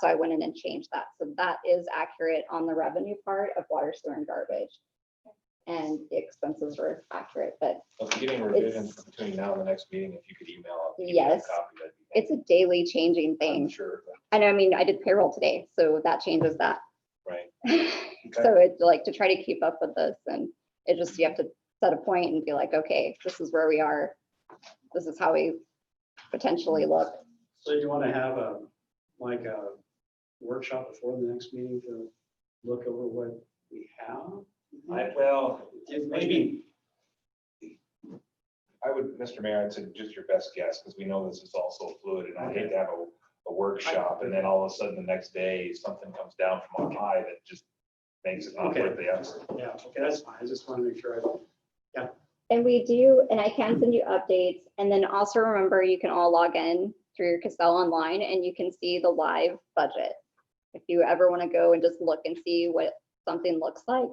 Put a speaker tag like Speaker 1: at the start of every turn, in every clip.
Speaker 1: So I went in and changed that. So that is accurate on the revenue part of water, sewer and garbage. And the expenses were accurate, but
Speaker 2: Well, if you're getting revisions between now and the next meeting, if you could email. out- give me a
Speaker 1: Yes.
Speaker 2: copy, that'd be
Speaker 1: it's a daily changing
Speaker 2: great. I'm
Speaker 1: thing.
Speaker 2: Sure,
Speaker 1: And I mean, I did payroll today, so that changes that.
Speaker 2: right. Okay.
Speaker 1: So it's like to try to keep up with this and it just, you have to set a point and be like, okay, this is where we are. This is how we potentially look.
Speaker 3: So you want to have a, like a workshop before the next meeting to look over what we have?
Speaker 2: I, well,
Speaker 3: It may
Speaker 2: maybe.
Speaker 3: be-
Speaker 2: I would, Mr. Mayor, I'd say just your best guess, because we know this is also fluid, and I hate to have a, a workshop, and then all of a sudden the next day, something comes down from on high that just makes it not worth the effort.
Speaker 3: Yeah, okay, that's fine. I just want to make sure. I
Speaker 1: And we do, and I can send you updates. And then also remember, you can all log in through your Casell online and you can see the live budget. If you ever want to go and just look and see what something looks like,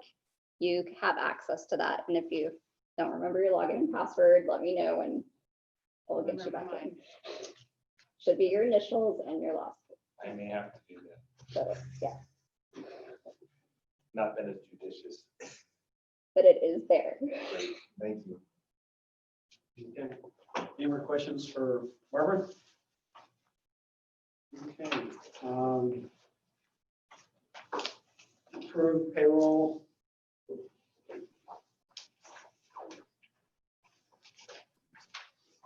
Speaker 1: you have access to that. And if you don't remember your login and password, let me know and we'll get you back in. Should be your initials and your last.
Speaker 2: I may have to do
Speaker 1: So,
Speaker 2: that,
Speaker 1: yeah,
Speaker 2: not been as judicious.
Speaker 1: but it is there.
Speaker 2: Great, Thank you.
Speaker 3: Okay. Any more questions for Barbara? Okay. um, Approve payroll.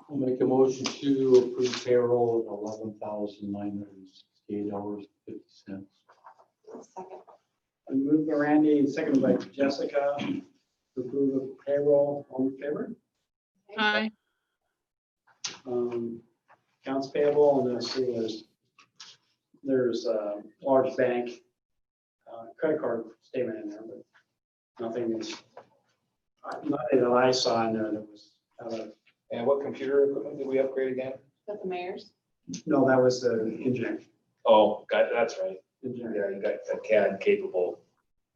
Speaker 4: I'll make a motion to approve payroll of eleven thousand nine hundred and sixty-eight dollars fifty cents.
Speaker 3: I moved by Randy and seconded by Jessica. to Approve of payroll. All in favor?
Speaker 5: Aye.
Speaker 3: um, accounts payable, and then see there's, there's a large bank uh, credit card statement in there, but nothing is, uh, nothing that I saw in there that was, uh,
Speaker 2: And what computer equipment did we upgrade again?
Speaker 6: That the mayor's?
Speaker 3: no, that was the engineer.
Speaker 2: Oh, got, that's right,
Speaker 3: engineer.
Speaker 2: yeah, you got a CAD capable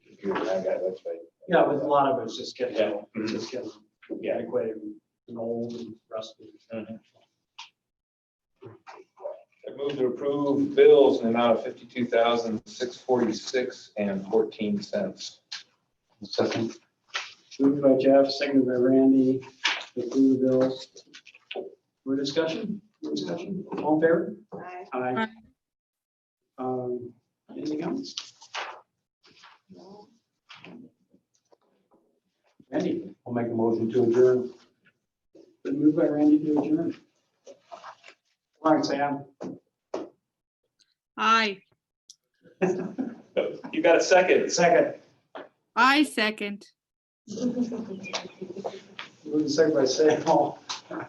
Speaker 2: computer, I got, that's right.
Speaker 3: Yeah, but a lot of it's just getting,
Speaker 2: Yeah.
Speaker 3: just getting
Speaker 2: Yeah.
Speaker 3: antiquated and old and rusty.
Speaker 2: I move to approve bills in the amount of fifty-two thousand, six forty-six and fourteen cents.
Speaker 4: Second,
Speaker 3: Moved by Jeff, seconded by Randy, to approve the bills. More discussion? More discussion? All in favor?
Speaker 6: Aye.
Speaker 3: Aye. Um, anything else? Randy,
Speaker 4: I'll make a motion to adjourn.
Speaker 3: been moved by Randy to adjourn. All right, Sam.
Speaker 5: Aye.
Speaker 2: You got a second.
Speaker 3: Second,
Speaker 5: I second.
Speaker 3: moved second by Sam. All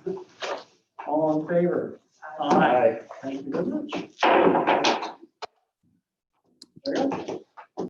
Speaker 3: in favor? Aye. Thank you very much.